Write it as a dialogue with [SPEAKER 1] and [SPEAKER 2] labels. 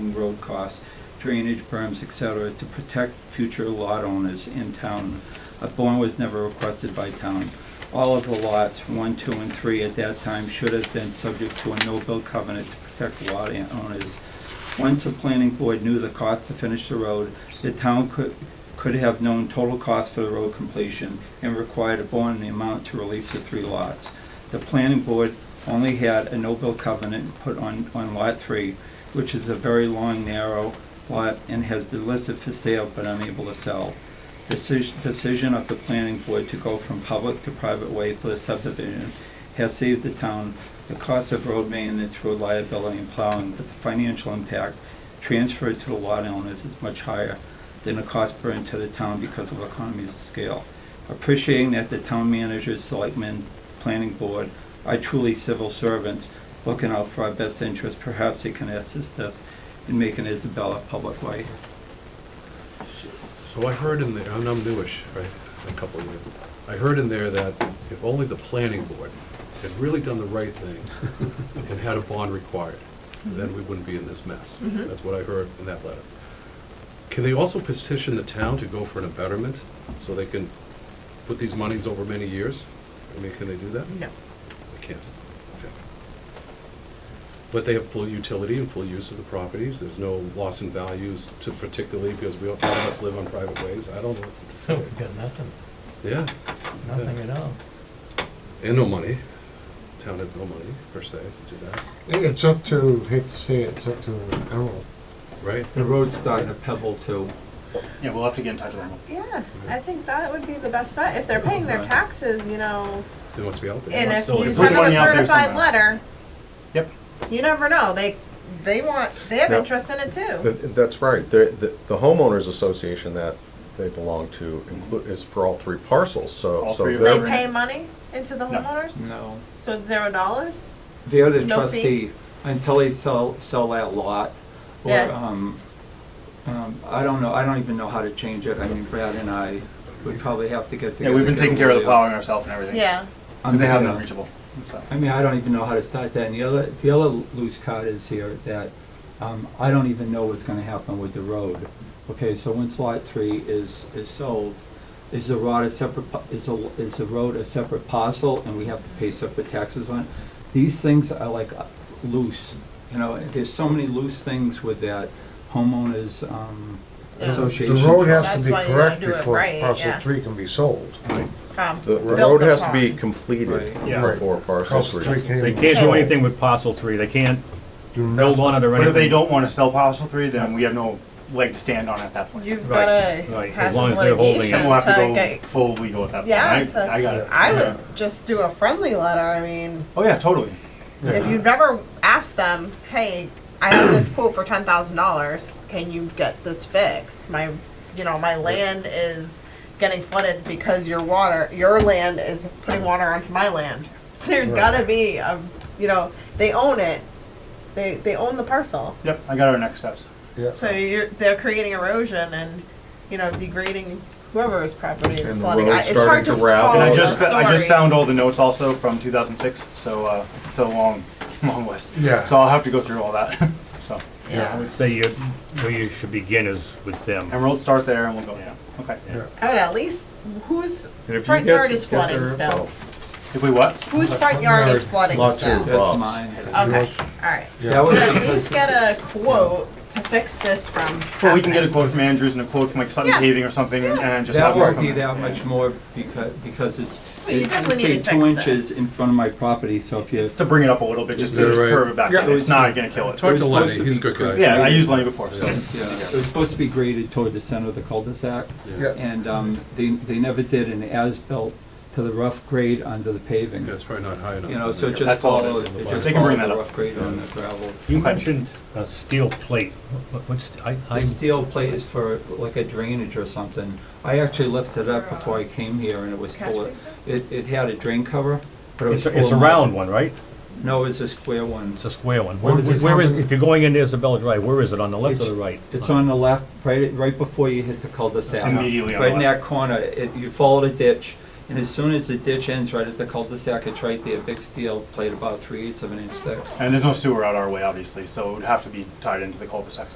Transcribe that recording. [SPEAKER 1] road costs, drainage berms, et cetera, to protect future lot owners in town. A bond was never requested by town. All of the lots, one, two, and three at that time should have been subject to a no-build covenant to protect lot owners. Once the planning board knew the cost to finish the road, the town could, could have known total cost for the road completion and required a bond in the amount to release the three lots. The planning board only had a no-build covenant put on, on lot three, which is a very long, narrow lot and has been listed for sale but unable to sell. Decision, decision of the planning board to go from public to private way for the subdivision has saved the town the cost of road maintenance, road liability, and plowing, but the financial impact transferred to the lot owners is much higher than the cost burned to the town because of economies of scale. Appreciating that the town managers, selectmen, planning board are truly civil servants looking out for our best interest, perhaps they can assist us in making Isabella public way.
[SPEAKER 2] So I heard in there, and I'm newish, right, a couple of years, I heard in there that if only the planning board had really done the right thing and had a bond required, then we wouldn't be in this mess.
[SPEAKER 3] Mhm.
[SPEAKER 2] That's what I heard in that letter. Can they also petition the town to go for an abatement, so they can put these monies over many years? I mean, can they do that?
[SPEAKER 3] No.
[SPEAKER 2] They can't. Okay. But they have full utility and full use of the properties, there's no loss in values to particularly, because we all, all of us live on private ways, I don't know. what to say.
[SPEAKER 4] So we've got nothing,
[SPEAKER 2] Yeah,
[SPEAKER 4] nothing at all.
[SPEAKER 2] and no money, town has no money, per se, to do that,
[SPEAKER 5] It's up to, hate to say it, it's up to Emerald.
[SPEAKER 2] right?
[SPEAKER 1] The road's starting to pebble too.
[SPEAKER 6] Yeah, we'll have to get in touch with them.
[SPEAKER 3] Yeah, I think that would be the best bet, if they're paying their
[SPEAKER 1] Right.
[SPEAKER 3] taxes, you know,
[SPEAKER 2] They must be out there.
[SPEAKER 3] and if
[SPEAKER 6] So we
[SPEAKER 3] you
[SPEAKER 6] put
[SPEAKER 3] send them a
[SPEAKER 6] money out there
[SPEAKER 3] certified
[SPEAKER 6] somewhere.
[SPEAKER 3] letter,
[SPEAKER 6] Yep.
[SPEAKER 3] you never know, they, they want, they have
[SPEAKER 7] Yeah.
[SPEAKER 3] interest in it too.
[SPEAKER 7] That- That's right. The the- the homeowners association that they belong to inclu- is for all three parcels, so.
[SPEAKER 6] All
[SPEAKER 7] so
[SPEAKER 6] three of
[SPEAKER 3] They
[SPEAKER 6] them.
[SPEAKER 7] they're-
[SPEAKER 3] pay money into the
[SPEAKER 6] No.
[SPEAKER 3] homeowners,
[SPEAKER 1] No. Mm.
[SPEAKER 3] so it's zero dollars?
[SPEAKER 1] They're the
[SPEAKER 3] No fee?
[SPEAKER 1] trustee until they sell, sell that lot. Or,
[SPEAKER 3] Yeah.
[SPEAKER 1] um, um, I don't know, I don't even know how to change it. I mean, Brad and I would probably have to get
[SPEAKER 6] Yeah,
[SPEAKER 1] together.
[SPEAKER 6] we've been
[SPEAKER 1] get
[SPEAKER 6] taking
[SPEAKER 1] a
[SPEAKER 6] care of the
[SPEAKER 1] lawyer.
[SPEAKER 6] plowing ourselves and everything.
[SPEAKER 3] Yeah,
[SPEAKER 6] Because they have
[SPEAKER 1] Yeah.
[SPEAKER 6] not reachable, so.
[SPEAKER 1] I mean, I don't even know how to start that. And the other, the other loose card is here that, um, I don't even know what's gonna happen with the road. Okay, so once lot three is, is sold, is the road a separate, pa- is the, is the road a separate parcel and we have to pay separate taxes on? it? These things are like uh, loose, you know, there's so many loose things with that homeowners, um,
[SPEAKER 3] Yeah. The
[SPEAKER 5] The
[SPEAKER 1] association.
[SPEAKER 5] road has to
[SPEAKER 3] That's
[SPEAKER 5] be
[SPEAKER 3] why you
[SPEAKER 5] correct
[SPEAKER 3] wanna do it
[SPEAKER 5] before
[SPEAKER 3] right,
[SPEAKER 5] parcel
[SPEAKER 3] yeah.
[SPEAKER 5] three can be sold.
[SPEAKER 3] um,
[SPEAKER 7] The
[SPEAKER 3] built
[SPEAKER 7] road has to be
[SPEAKER 3] upon.
[SPEAKER 7] completed
[SPEAKER 1] Right.
[SPEAKER 6] Yeah.
[SPEAKER 7] before parcel
[SPEAKER 5] Parcel three
[SPEAKER 7] three.
[SPEAKER 5] can
[SPEAKER 8] They
[SPEAKER 5] even
[SPEAKER 8] can't do
[SPEAKER 3] So-
[SPEAKER 8] anything with parcel three, they can't
[SPEAKER 5] do
[SPEAKER 8] build
[SPEAKER 5] nothing.
[SPEAKER 8] on it or
[SPEAKER 6] But if they
[SPEAKER 8] anything.
[SPEAKER 6] don't want to sell parcel three, then we have no leg to stand on at that point.
[SPEAKER 3] You've
[SPEAKER 8] Right,
[SPEAKER 3] gotta
[SPEAKER 8] right, as
[SPEAKER 3] have
[SPEAKER 8] long
[SPEAKER 3] some
[SPEAKER 8] as they're holding it.
[SPEAKER 3] litigation
[SPEAKER 6] Then we'll have to
[SPEAKER 3] to
[SPEAKER 6] go
[SPEAKER 3] get,
[SPEAKER 6] full legal at that point.
[SPEAKER 3] Yeah,
[SPEAKER 6] I-
[SPEAKER 3] to-
[SPEAKER 6] I got it.
[SPEAKER 3] I would just do a friendly letter, I mean,
[SPEAKER 6] Oh, yeah, totally.
[SPEAKER 3] if you've never asked them, hey, I have this quote for ten thousand dollars, can you get this fixed? My, you know, my land is getting flooded because your water, your land is putting water onto my land. There's gotta be a, you know, they own it, they, they own the parcel.
[SPEAKER 6] Yep, I got our next steps.
[SPEAKER 5] Yeah.
[SPEAKER 3] So you're, they're creating erosion and, you know, degrading whoever's property is
[SPEAKER 7] And the
[SPEAKER 3] flooding. I-
[SPEAKER 7] road's
[SPEAKER 3] It's hard
[SPEAKER 7] starting
[SPEAKER 3] to
[SPEAKER 7] to ravel.
[SPEAKER 3] follow
[SPEAKER 6] And I
[SPEAKER 7] Oh,
[SPEAKER 3] the
[SPEAKER 6] just, I just
[SPEAKER 3] story.
[SPEAKER 6] found all the notes also from 2006, so uh, it's a long, long list.
[SPEAKER 5] Yeah.
[SPEAKER 6] So I'll have to go through all that, so.
[SPEAKER 8] I would say you, where you should begin is with them.
[SPEAKER 6] And we'll start there and we'll go, yeah, okay.
[SPEAKER 3] I would at least, whose
[SPEAKER 7] And if you
[SPEAKER 3] front
[SPEAKER 7] get-
[SPEAKER 3] yard is
[SPEAKER 7] get their
[SPEAKER 3] flooding
[SPEAKER 7] info,
[SPEAKER 3] still?
[SPEAKER 6] If we what?
[SPEAKER 3] Whose front yard is
[SPEAKER 5] yard.
[SPEAKER 3] flooding
[SPEAKER 7] Lot
[SPEAKER 3] still?
[SPEAKER 7] two.
[SPEAKER 1] That's
[SPEAKER 7] Lots.
[SPEAKER 1] mine.
[SPEAKER 3] Okay,
[SPEAKER 5] Yours.
[SPEAKER 3] alright.
[SPEAKER 1] That
[SPEAKER 3] But
[SPEAKER 1] was-
[SPEAKER 3] at least get a quote to fix this from
[SPEAKER 6] Well, we can get a
[SPEAKER 3] happening.
[SPEAKER 6] quote from Andrews and a quote from like Sutton
[SPEAKER 3] Yeah.
[SPEAKER 6] Paving or something and just
[SPEAKER 1] That
[SPEAKER 6] have them
[SPEAKER 1] won't
[SPEAKER 6] come
[SPEAKER 1] be
[SPEAKER 6] in.
[SPEAKER 1] that much more because, because it's,
[SPEAKER 3] But you
[SPEAKER 1] it's
[SPEAKER 3] definitely need
[SPEAKER 1] say
[SPEAKER 3] to
[SPEAKER 1] two
[SPEAKER 3] fix
[SPEAKER 1] inches
[SPEAKER 3] this.
[SPEAKER 1] in front of my property, so if you.
[SPEAKER 6] Just to bring it up a little bit, just to
[SPEAKER 2] Yeah, right.
[SPEAKER 6] curve it back
[SPEAKER 1] Yeah.
[SPEAKER 6] in. It's not gonna kill it.
[SPEAKER 2] Talk to
[SPEAKER 1] supposed to
[SPEAKER 2] Lenny, he's a
[SPEAKER 1] be
[SPEAKER 2] good guy.
[SPEAKER 6] Yeah, I used Lenny before, so.
[SPEAKER 1] Yeah, it was supposed to be graded toward the center of the cul-de-sac,
[SPEAKER 5] Yeah.
[SPEAKER 1] and um, they, they never did an as-built to the rough grade under the paving.
[SPEAKER 2] That's probably not high enough.
[SPEAKER 1] You know, so it just
[SPEAKER 6] That's all it
[SPEAKER 1] follows,
[SPEAKER 6] is.
[SPEAKER 1] it just
[SPEAKER 6] They can
[SPEAKER 1] follows
[SPEAKER 6] bring
[SPEAKER 1] the
[SPEAKER 6] that up.
[SPEAKER 1] rough grade on the gravel.
[SPEAKER 8] You mentioned a steel plate, What- what- what's, I,
[SPEAKER 1] The
[SPEAKER 8] I,
[SPEAKER 1] steel plate is for like a drainage or something. I actually lifted it up before I came here, and it was
[SPEAKER 3] Catch
[SPEAKER 1] full of, it, it had a drain cover, but it was
[SPEAKER 8] it's,
[SPEAKER 1] full
[SPEAKER 8] a-
[SPEAKER 1] of.
[SPEAKER 8] it's a round one, right?
[SPEAKER 1] No, it's a square one.
[SPEAKER 8] It's a square one.
[SPEAKER 5] Where
[SPEAKER 8] Where
[SPEAKER 5] does it
[SPEAKER 8] where is,
[SPEAKER 5] come in?
[SPEAKER 8] if you're going into Isabella Drive, where is it, on the left or
[SPEAKER 1] It's-
[SPEAKER 8] the right?
[SPEAKER 1] It's on the left, right, right before you hit the cul-de-sac.
[SPEAKER 6] Immediately on the
[SPEAKER 1] Right in
[SPEAKER 6] left.
[SPEAKER 1] that corner, it, you follow the ditch, and as soon as the ditch ends right at the cul-de-sac, it's right there, big steel plate about three eighths of an inch thick.
[SPEAKER 6] And there's no sewer out our way, obviously, so it would have to be tied into the cul-de-sac